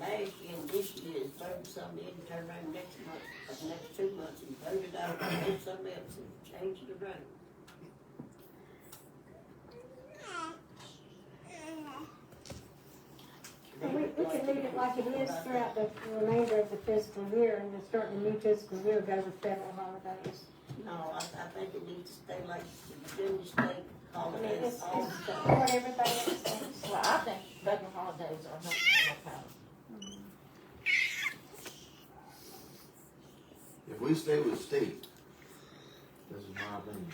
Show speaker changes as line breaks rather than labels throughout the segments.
last year and this year is thirty something, and turn around next month, or the next two months, and thirty dollars, and then something else, and change the rate.
We, we can leave it like it is throughout the remainder of the fiscal year, and then start the new fiscal year, go with federal holidays.
No, I, I think it needs to stay like, then you stay, all
I mean,
it
it's,
is,
it's
all the time.
what everybody else thinks.
Well, I think federal holidays are not, no problem.
If we stay with state, this is my opinion.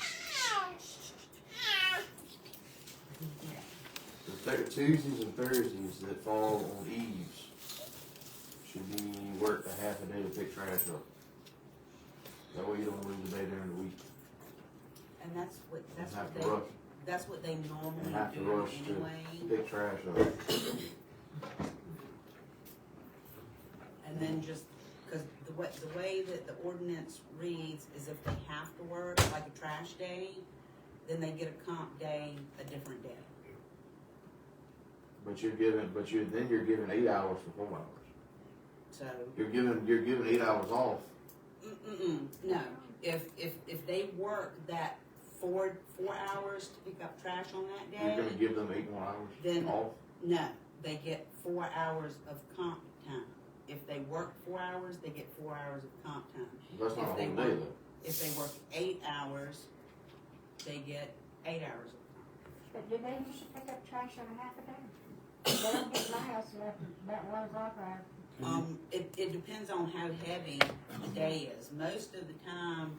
The Thur- Tuesdays and Thursdays that fall on eves should be worked a half a day to pick trash up. That way you don't lose a day during the week
And that's what,
and
that's
have
what
to rush,
they, that's what they normally
and have to
do
rush to
anyway,
pick trash up.
and then just, cause the way, the way that the ordinance reads is if they have to work, like a trash day, then they get a comp day, a different day.
But you're giving, but you, then you're giving eight hours for four hours.
So,
You're giving, you're giving eight hours off.
mm-mm, no, if, if, if they work that four, four hours to pick up trash on that
You're gonna
day,
give them eight more hours
Then-
off.
no, they get four hours of comp time. If they work four hours, they get four hours of comp time.
That's not a
if
whole
they
day
work-
though.
If they work eight hours, they get eight hours. of
But do they usually pick up trash on a half a day? They don't get my house enough, about one block ride.
comp. Um, it, it depends on how heavy the day is. Most of the time,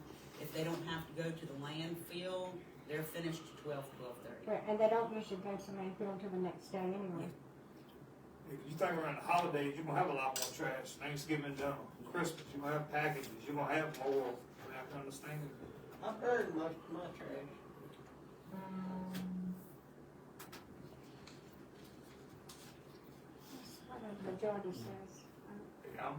if they don't have to go to the landfill, they're finished at twelve, twelve thirty.
Right, and they don't usually go to Mayfield till the next day anyway.
If you think around the holidays, you're gonna have a lot more trash, Thanksgiving, dinner, Christmas, you're gonna have packages, you're gonna have more, you have to understand it.
I burned most of my trash.
That's what the majority says.
I'm,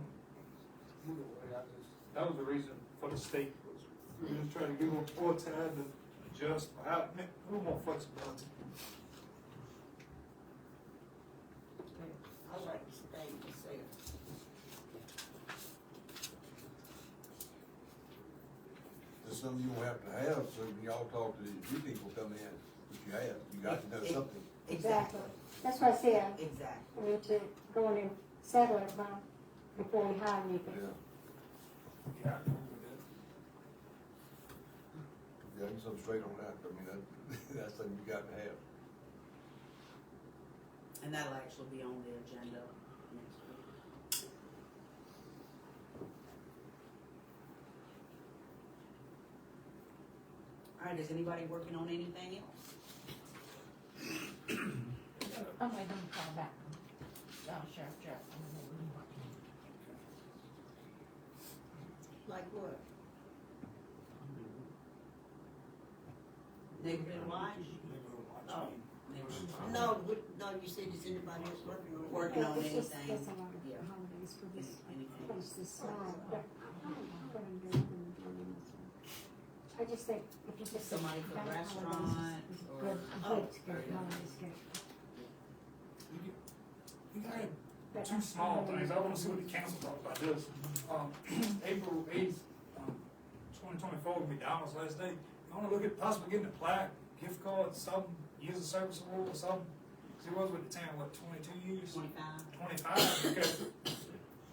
either way, I just, that was the reason for the state was, we was trying to give them more time to adjust, or have, a little more flexibility.
I like to stay myself.
There's something you don't have to have, so when y'all talk to these new people come in, what you have, you got to know something.
That's what I said,
Exactly.
we need to go in and settle it by, before we hire anybody.
Yeah,
Yeah, I agree with
yeah, you something straight on that, I mean, that, that's something you got to have.
And that'll actually be on the agenda next week. All right, is anybody working on anything else?
I'm gonna call back. Oh, sure, sure.
Like what?
They've been watching.
that.
Oh.
They were-
No, what, no, you said, is anybody else working on work?
Working on
It's just-
anything.
It's a lot of
Yeah.
holidays for this,
Anything.
for this summer, but I just think if you just.
Somebody for the
Bank holidays is-
restaurant
is
or-
good. I
Oh,
think it's
there
good
you go.
holidays, good.
You gotta
But I-
two small
I-
things, I wanna see what the council thought about this. Um, April eighth, um, twenty twenty-four, McDonald's last day, you wanna look at possibly getting a plaque, gift card, something, years of service award or something? Cause it was with the town, what, twenty-two years?
Twenty-five?
Twenty-five, okay.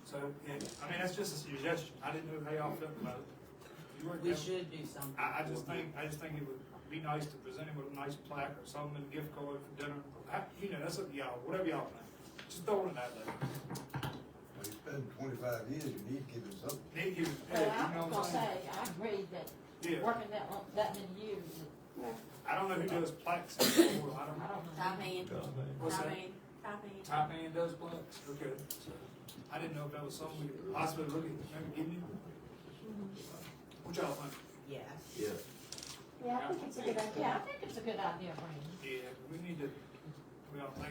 So, yeah, I mean, that's just a suggestion, I didn't know how y'all felt about it. You weren't
We
there.
should do something.
I, I just think, I just think it would be nice to present him with a nice plaque or something, and gift card for dinner, I, you know, that's up to y'all, whatever y'all think, just throw it in that there.
When you spend twenty-five years, you need to give them something.
They give, yeah,
But
you know
I'm
what
gonna
I'm
say,
saying?
I agree that
Yeah,
working that long, that many years,
I don't know who does plaques anymore, I don't
I
know.
don't know.
Top hand,
What's
top
that?
hand, top hand.
Top man does plaques, okay. So, I didn't know if that was something we could possibly look at, maybe getting you. What y'all think?
Yes.
Yeah.
Yeah, I think it's a good idea.
Yeah, I think it's a good idea, Brandon.
Yeah, we need to, we all think